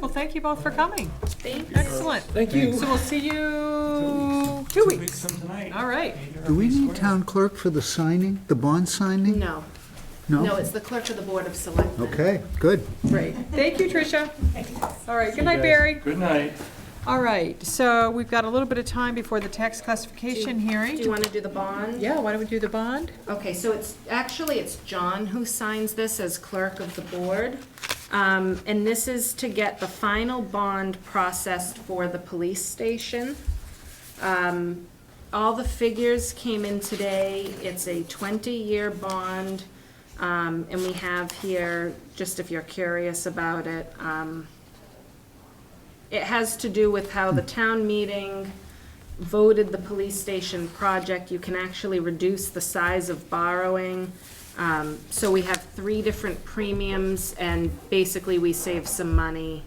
Well, thank you both for coming. Thank Excellent. Thank you. So we'll see you two weeks. Some tonight. All right. Do we need town clerk for the signing, the bond signing? No, no, it's the clerk of the Board of Selectmen. Okay, good. Right. Thank you, Tricia. All right. Good night, Barry. Good night. All right. So we've got a little bit of time before the tax classification Do you hearing. want to do the bond? Yeah, why don't we do the bond? Okay, so it's, actually, it's John who signs this as clerk of the board. Um, And this is to get the final bond processed for the police station. Um, All the figures came in today. It's a 20-year bond. Um, And we have here, just if you're curious about it, um, it has to do with how the town meeting voted the police station project. You can actually reduce the size of borrowing. Um, So we have three different premiums, and basically, we save some money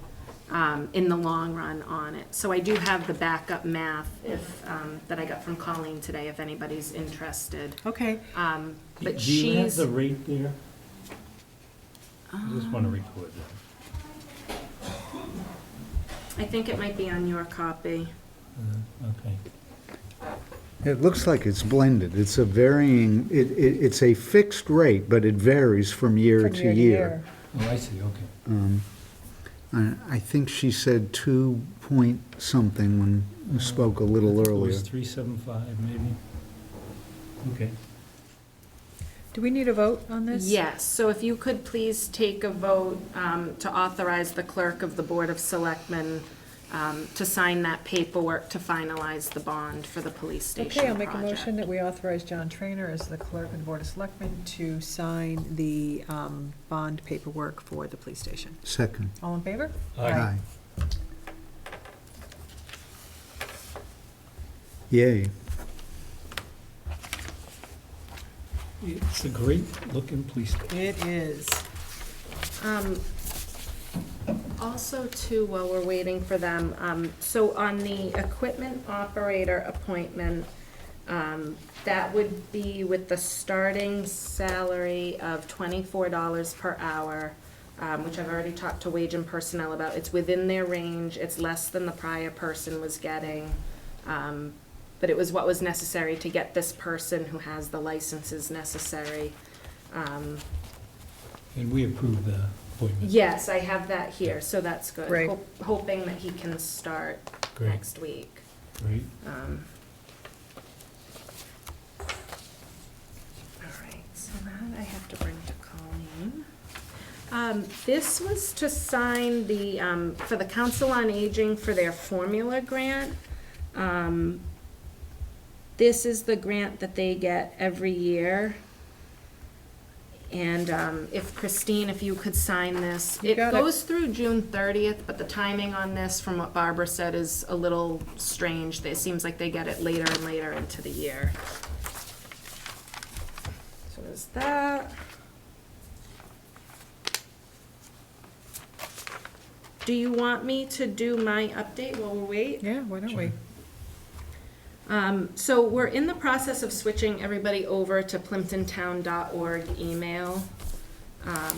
um, in the long run on it. So I do have the backup math if, um, that I got from Colleen today, if anybody's interested. Okay. Um, But Do you have she's, Um. the rate there? I just want to record that. I think it might be on your copy. Okay. It looks like it's blended. It's a varying, it, it, it's a fixed rate, but it varies from year to year. Oh, I see, okay. I I think she said two point something when we spoke a I little think It earlier. was three seven five, maybe? Okay. Do we need a vote on this? Yes, so if you could please take a vote um, to authorize the clerk of the Board of Selectmen um, to sign that paperwork to finalize the bond for the police station Okay, I'll make a project. motion that we authorize John Trainer as the clerk and board of selectmen to sign the um, bond paperwork for the police station. Second. All in favor? Aye. Yay. It's a great-looking police station. It is. Um, Also too, while we're waiting for them, um, so on the equipment operator appointment, um, that would be with the starting salary of twenty-four dollars per hour, um, which I've already talked to wage and personnel about. It's within their range, it's less than the prior person was getting. Um, But it was what was necessary to get this person who has the licenses necessary. Um, And we approved the appointment. Yes, I have that here, so that's good. Right. Hop- Hoping that he can start Great, next week. great. Um, All right, so that I have to bring to Colleen. Um, This was to sign the, um, for the Council on Aging for their formula grant. Um, This is the grant that they get every year. And um, if Christine, if you could sign this. You It got it. goes through June 30th, but the timing on this, from what Barbara said, is a little strange. It seems like they get it later and later into the year. So is that. Do you want me to do my update while we wait? Yeah, why don't we? Um, so we're in the process of switching everybody over to plimptontown.org email. Um,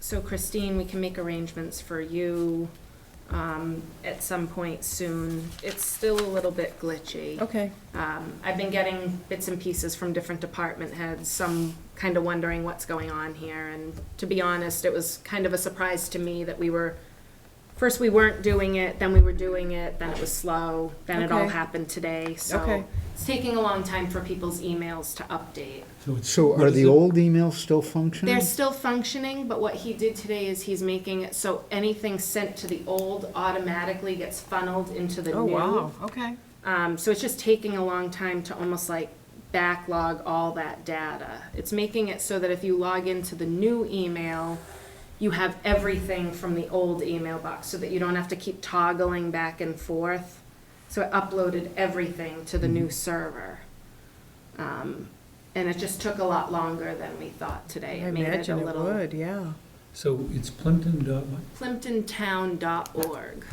So Christine, we can make arrangements for you, um, at some point soon. It's still a little bit glitchy. Okay. Um, I've been getting bits and pieces from different department heads, some kind of wondering what's going on here. And to be honest, it was kind of a surprise to me that we were, first we weren't doing it, then we were doing it, then it was slow, then it all Okay. happened today. Okay. So it's taking a long time for people's emails to update. it's- So what are is the it? old emails still functioning? They're still functioning, but what he did today is he's making it so anything sent to the old automatically gets funneled into the new. Oh, wow, okay. Um, so it's just taking a long time to almost like backlog all that data. It's making it so that if you log into the new email, you have everything from the old email box so that you don't have to keep toggling back and forth. So it uploaded everything to the new server. Um, and it just took a lot longer than we thought today. I It made it a imagine it little would, yeah. So it's Plimpton dot, what? plimptontown.org.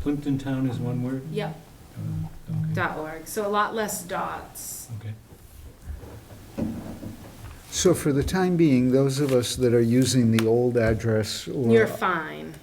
Plimpton Town is one word? Yep, Uh, okay, dot .org. So a lot less dots. Okay. So for the time being, those of us that are using the old address or You're fine.